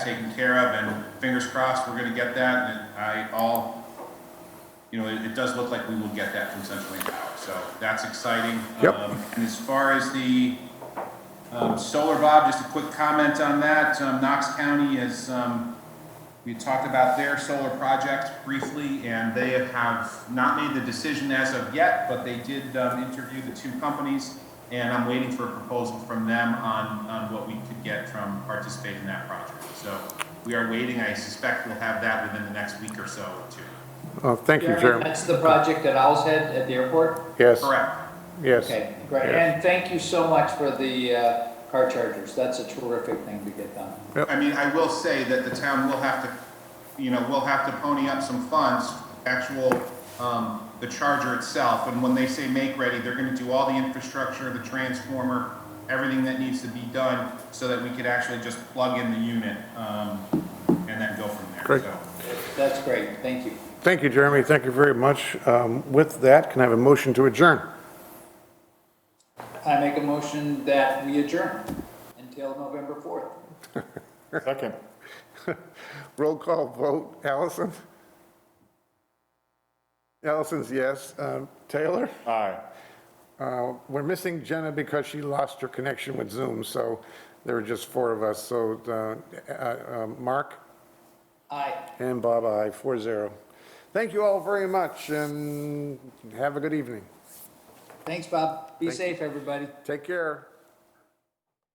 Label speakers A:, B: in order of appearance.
A: taken care of, and fingers crossed, we're gonna get that, and I, all, you know, it, it does look like we will get that from Central Maine Power, so that's exciting.
B: Yep.
A: Um, And as far as the, um, solar, Bob, just a quick comment on that, um, Knox County is, um, we talked about their solar project briefly, and they have not made the decision as of yet, but they did um, interview the two companies, and I'm waiting for a proposal from them on, on what we could get from participating in that project. So we are waiting, I suspect we'll have that within the next week or so, too.
B: Oh, thank you,
C: Jeremy,
B: Chairman.
C: That's the project at Owl's Head at the airport?
B: Yes,
A: Correct.
B: yes.
C: Okay, great.
B: Yes.
C: And thank you so much for the uh, car chargers. That's a terrific thing to get done.
A: I mean, I will say that the town will have to, you know, will have to pony up some funds, actual, um, the charger itself, and when they say make ready, they're gonna do all the infrastructure, the transformer, everything that needs to be done, so that we could actually just plug in the unit, um, and then go from there,
B: Great.
A: so.
C: That's great, thank you.
B: Thank you, Jeremy. Thank you very much. Um, With that, can I have a motion to adjourn?
C: I make a motion that we adjourn until November 4th.
B: Second. Roll call vote. Allison? Allison's yes. Um, Taylor?
D: Aye.
B: Uh, We're missing Jenna because she lost her connection with Zoom, so there were just four of us. So uh, uh, uh, Mark
C: Aye.
B: and Bob, aye, 4-0. Thank you all very much, and have a good evening.
C: Thanks, Bob. Be safe, everybody.
B: Take care.